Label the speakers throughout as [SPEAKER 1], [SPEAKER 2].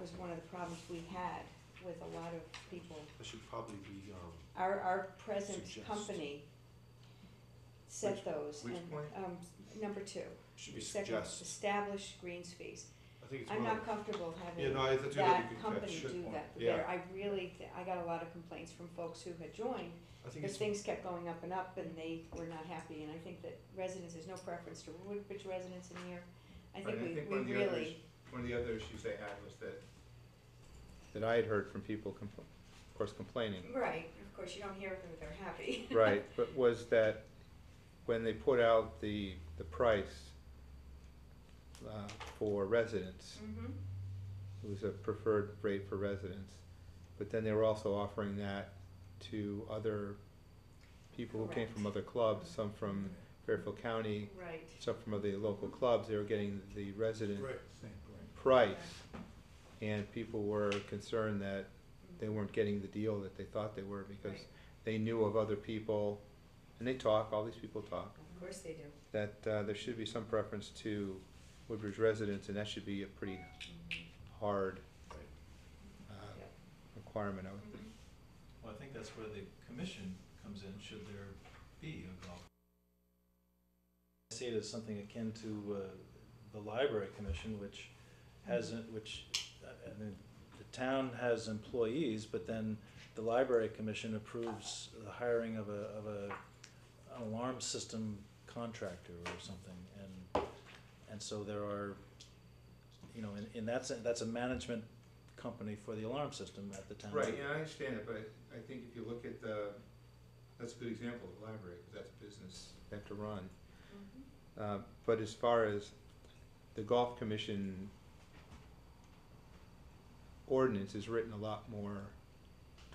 [SPEAKER 1] was one of the problems we had with a lot of people.
[SPEAKER 2] That should probably be, um,
[SPEAKER 1] Our, our present
[SPEAKER 2] Suggest.
[SPEAKER 1] company set
[SPEAKER 2] Which-
[SPEAKER 1] those.
[SPEAKER 2] which
[SPEAKER 1] and,
[SPEAKER 2] point?
[SPEAKER 1] Um, number two.
[SPEAKER 2] should be
[SPEAKER 1] Second,
[SPEAKER 2] suggest.
[SPEAKER 1] establish greens fees.
[SPEAKER 2] I think it's
[SPEAKER 1] I'm
[SPEAKER 2] one of,
[SPEAKER 1] not comfortable
[SPEAKER 2] yeah,
[SPEAKER 1] having
[SPEAKER 2] no, I think that'd be
[SPEAKER 1] that
[SPEAKER 2] a good
[SPEAKER 1] company
[SPEAKER 2] catch.
[SPEAKER 1] do that.
[SPEAKER 2] Yeah.
[SPEAKER 1] There, I really, th- I got a lot of complaints from folks who had joined,
[SPEAKER 2] I think
[SPEAKER 1] because
[SPEAKER 2] it's,
[SPEAKER 1] things kept going up and up and they were not happy. And I think that residents, there's no preference to Woodbridge residents in here. I
[SPEAKER 3] Right,
[SPEAKER 1] think
[SPEAKER 3] I
[SPEAKER 1] we,
[SPEAKER 3] think
[SPEAKER 1] we
[SPEAKER 3] one of the others-
[SPEAKER 1] really,
[SPEAKER 3] One of the other issues they had was that, that I had heard from people, compl- of course complaining,
[SPEAKER 1] right, of course, you don't hear that they're happy.
[SPEAKER 3] right, but was that when they put out the, the price uh, for residents,
[SPEAKER 1] Mhm.
[SPEAKER 3] it was a preferred rate for residents, but then they were also offering that to other people who came from other clubs,
[SPEAKER 1] Mm-hmm.
[SPEAKER 3] some from Fairfield County,
[SPEAKER 1] Right.
[SPEAKER 3] some from other local clubs, they were getting the resident
[SPEAKER 2] right,
[SPEAKER 3] price. And people were concerned that they weren't getting the deal that they thought they were because
[SPEAKER 1] Right.
[SPEAKER 3] they knew of other people, and they talk, all these people talk,
[SPEAKER 1] Mm-hmm. Of course they do.
[SPEAKER 3] that uh, there should be some preference to Woodbridge residents, and that should be a pretty hard
[SPEAKER 2] Right.
[SPEAKER 3] uh,
[SPEAKER 1] Yep.
[SPEAKER 3] requirement, I
[SPEAKER 1] Mm-hmm.
[SPEAKER 3] would think.
[SPEAKER 4] Well, I think that's where the commission comes in, should there be a golf. I see it as something akin to, uh, the library commission, which hasn't, which, uh, I mean, the town has employees, but then the library commission approves the hiring of a, of a an alarm system contractor or something, and, and so there are, you know, in, in that sense, that's a management company for the alarm system at the town.
[SPEAKER 3] Right, yeah, I understand it, but I think if you look at the, that's a good example of library, because that's a business they have to run.
[SPEAKER 1] Mm-hmm.
[SPEAKER 3] Uh, but as far as the golf commission ordinance is written a lot more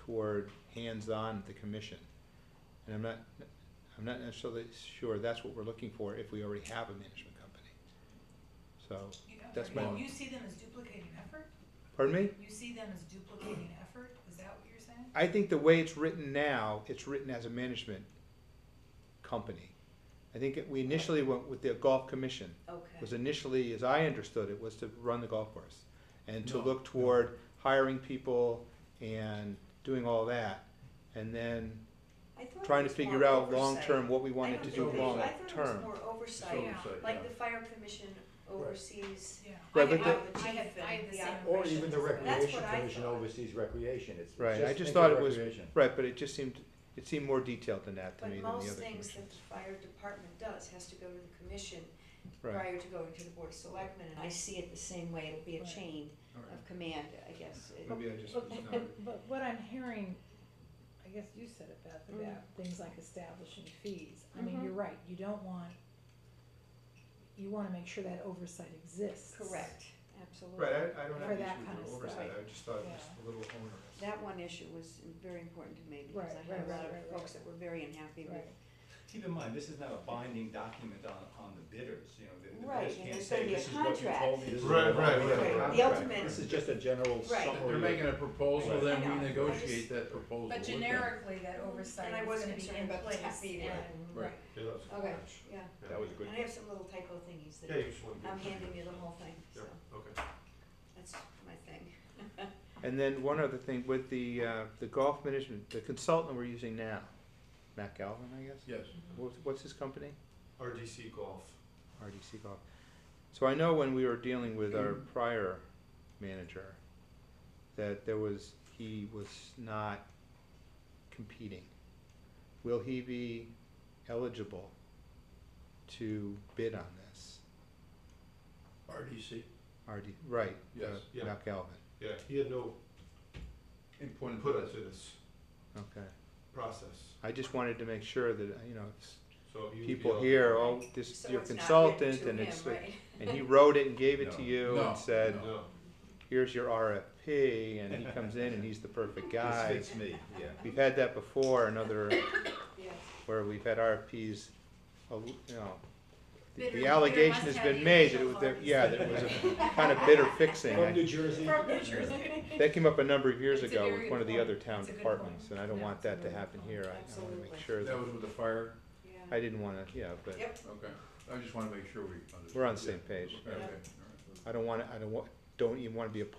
[SPEAKER 3] toward hands-on at the commission. And I'm not, I'm not necessarily sure that's what we're looking for if we already have a management company. So,
[SPEAKER 5] You-
[SPEAKER 3] That's
[SPEAKER 5] okay,
[SPEAKER 3] my-
[SPEAKER 5] You see them as duplicating effort?
[SPEAKER 3] pardon me?
[SPEAKER 5] You see them as duplicating effort? Is that what you're saying?
[SPEAKER 3] I think the way it's written now, it's written as a management company. I think it- we initially went with the golf commission, was
[SPEAKER 1] Okay.
[SPEAKER 3] initially, as I understood it, was to run the golf course. And to
[SPEAKER 4] No,
[SPEAKER 3] look
[SPEAKER 4] no.
[SPEAKER 3] toward hiring people and doing all that. And then
[SPEAKER 1] I thought it
[SPEAKER 3] trying to
[SPEAKER 1] was more
[SPEAKER 3] figure out
[SPEAKER 1] oversight.
[SPEAKER 3] long-term what we wanted
[SPEAKER 1] I
[SPEAKER 3] to
[SPEAKER 1] don't
[SPEAKER 3] do
[SPEAKER 1] think they-
[SPEAKER 3] long
[SPEAKER 1] I thought it was
[SPEAKER 3] term.
[SPEAKER 1] more oversight,
[SPEAKER 5] Yeah.
[SPEAKER 1] like the fire commission oversees.
[SPEAKER 5] Yeah.
[SPEAKER 3] Right,
[SPEAKER 5] I-
[SPEAKER 3] but
[SPEAKER 5] I-
[SPEAKER 1] the-
[SPEAKER 5] I had, I had the
[SPEAKER 1] Yeah.
[SPEAKER 5] same
[SPEAKER 1] Or
[SPEAKER 5] impression.
[SPEAKER 2] Or even the
[SPEAKER 5] as well.
[SPEAKER 1] That's
[SPEAKER 2] recreation
[SPEAKER 1] what I
[SPEAKER 2] commission
[SPEAKER 1] thought.
[SPEAKER 2] oversees recreation, it's, it's
[SPEAKER 3] Right, I just
[SPEAKER 2] think
[SPEAKER 3] thought
[SPEAKER 2] of
[SPEAKER 3] it was-
[SPEAKER 2] recreation.
[SPEAKER 3] Right, but it just seemed, it seemed more detailed than that to
[SPEAKER 1] But
[SPEAKER 3] me than the
[SPEAKER 1] most
[SPEAKER 3] other
[SPEAKER 1] things that
[SPEAKER 3] commissions.
[SPEAKER 1] the fire department does has to go to the commission
[SPEAKER 3] Right,
[SPEAKER 1] prior to going to the board of selectmen, and I see it the same way, it'll be a
[SPEAKER 6] Right.
[SPEAKER 1] chain of command, I guess. It-
[SPEAKER 3] maybe I just
[SPEAKER 6] But-
[SPEAKER 3] was not.
[SPEAKER 6] But what I'm hearing, I guess you said it, Beth,
[SPEAKER 5] Mm-hmm.
[SPEAKER 1] Mm.
[SPEAKER 6] about things like establishing fees, I mean,
[SPEAKER 1] Mhm.
[SPEAKER 6] you're right, you don't want, you wanna make sure that oversight exists.
[SPEAKER 1] Correct, absolutely.
[SPEAKER 3] Right, I, I don't have
[SPEAKER 6] For
[SPEAKER 3] an
[SPEAKER 6] that
[SPEAKER 3] issue
[SPEAKER 6] kind
[SPEAKER 3] with
[SPEAKER 6] of
[SPEAKER 3] the
[SPEAKER 6] stuff.
[SPEAKER 3] oversight, I just thought it was
[SPEAKER 6] Yeah.
[SPEAKER 3] a little onerous.
[SPEAKER 1] That one issue was very important to me,
[SPEAKER 6] Right,
[SPEAKER 1] because I had a
[SPEAKER 6] right,
[SPEAKER 1] lot
[SPEAKER 6] right,
[SPEAKER 1] of
[SPEAKER 6] right,
[SPEAKER 1] folks that were very unhappy with.
[SPEAKER 6] Right,
[SPEAKER 7] Keep in mind, this is not a binding document on, on the bidders, you know, the- the
[SPEAKER 1] Right,
[SPEAKER 7] bidders
[SPEAKER 1] and
[SPEAKER 7] can't
[SPEAKER 1] there's gonna
[SPEAKER 7] say,
[SPEAKER 1] be a
[SPEAKER 7] this is what you
[SPEAKER 1] contract.
[SPEAKER 7] told me, this is what
[SPEAKER 2] Right,
[SPEAKER 7] I
[SPEAKER 2] right,
[SPEAKER 7] wanted."
[SPEAKER 2] right,
[SPEAKER 1] Right, The ultimate,
[SPEAKER 2] This is just a general
[SPEAKER 1] Right.
[SPEAKER 2] summary.
[SPEAKER 8] They're making a proposal,
[SPEAKER 7] Right.
[SPEAKER 8] then
[SPEAKER 1] I know, I
[SPEAKER 8] we
[SPEAKER 1] just-
[SPEAKER 8] negotiate that proposal.
[SPEAKER 5] But
[SPEAKER 8] with them.
[SPEAKER 5] generically, that oversight
[SPEAKER 1] and I
[SPEAKER 5] is
[SPEAKER 1] wasn't
[SPEAKER 5] gonna be
[SPEAKER 1] concerned
[SPEAKER 5] in
[SPEAKER 1] about the
[SPEAKER 5] place
[SPEAKER 1] happy,
[SPEAKER 5] and,
[SPEAKER 8] Right.
[SPEAKER 2] Yeah, that was a good
[SPEAKER 1] Okay.
[SPEAKER 2] catch.
[SPEAKER 1] yeah,
[SPEAKER 2] Yeah.
[SPEAKER 7] That was a good.
[SPEAKER 1] and I have some little typo thingies
[SPEAKER 2] Yeah,
[SPEAKER 1] that
[SPEAKER 2] you just want to.
[SPEAKER 1] I'm handing you the whole thing, so
[SPEAKER 2] Yeah, okay.
[SPEAKER 1] that's my thing.
[SPEAKER 3] And then one other thing with the, uh, the golf management, the consultant we're using now, Matt Galvin, I guess?
[SPEAKER 8] Yes.
[SPEAKER 3] What's, what's his company?
[SPEAKER 2] RDC Golf.
[SPEAKER 3] RDC Golf. So I know when we were dealing with our
[SPEAKER 2] Mm.
[SPEAKER 3] prior manager, that there was, he was not competing. Will he be eligible to bid on this?
[SPEAKER 8] RDC.
[SPEAKER 3] RD, right, uh,
[SPEAKER 8] Yes.
[SPEAKER 2] Yeah.
[SPEAKER 3] Matt Galvin,
[SPEAKER 2] Yeah, he had no
[SPEAKER 8] Important.
[SPEAKER 2] input into this
[SPEAKER 3] okay.
[SPEAKER 2] process,
[SPEAKER 3] I just wanted to make sure that, you know, it's
[SPEAKER 2] so he would be
[SPEAKER 3] people
[SPEAKER 2] eligible.
[SPEAKER 3] here, oh, this,
[SPEAKER 1] So
[SPEAKER 3] your
[SPEAKER 1] it's not written
[SPEAKER 3] consultant,
[SPEAKER 1] to
[SPEAKER 3] and
[SPEAKER 1] him,
[SPEAKER 3] it's,
[SPEAKER 1] right?
[SPEAKER 3] and he wrote it and gave it to
[SPEAKER 7] No.
[SPEAKER 3] you
[SPEAKER 8] No.
[SPEAKER 3] and said,
[SPEAKER 2] No,
[SPEAKER 3] here's your RFP, and he comes in and he's the perfect guy.
[SPEAKER 7] This fits me, yeah.
[SPEAKER 3] We've had that before, another,
[SPEAKER 1] Yeah.
[SPEAKER 3] where we've had RFPs, a l- you know, the-
[SPEAKER 5] Bidder-
[SPEAKER 3] the
[SPEAKER 5] bidder
[SPEAKER 3] allegation
[SPEAKER 5] must
[SPEAKER 3] has
[SPEAKER 5] have
[SPEAKER 3] been
[SPEAKER 5] the
[SPEAKER 3] made that it was,
[SPEAKER 5] initial
[SPEAKER 3] that-
[SPEAKER 5] funds.
[SPEAKER 3] yeah, that it was a kind of bitter fixing.
[SPEAKER 2] from New
[SPEAKER 3] I-
[SPEAKER 2] Jersey.
[SPEAKER 5] From New Jersey.
[SPEAKER 3] That came up a number of years
[SPEAKER 5] It's a
[SPEAKER 3] ago
[SPEAKER 5] very
[SPEAKER 3] with one of the
[SPEAKER 5] good
[SPEAKER 3] other
[SPEAKER 5] point.
[SPEAKER 3] town
[SPEAKER 5] It's a good
[SPEAKER 3] departments,
[SPEAKER 5] point.
[SPEAKER 3] and I don't
[SPEAKER 6] Yeah,
[SPEAKER 3] want
[SPEAKER 6] it's a
[SPEAKER 3] that to
[SPEAKER 6] very good
[SPEAKER 3] happen
[SPEAKER 6] point.
[SPEAKER 3] here. I- I wanna
[SPEAKER 1] Absolutely.
[SPEAKER 3] make sure
[SPEAKER 8] That
[SPEAKER 3] that,
[SPEAKER 8] was with the fire,
[SPEAKER 1] Yeah.
[SPEAKER 3] I didn't wanna, yeah, but
[SPEAKER 1] Yep.
[SPEAKER 8] okay. I just wanna make sure we understand.
[SPEAKER 3] we're on the same page.
[SPEAKER 8] Okay, all
[SPEAKER 1] Yeah.
[SPEAKER 8] right.
[SPEAKER 3] I don't wanna, I don't want, don't even wanna be a part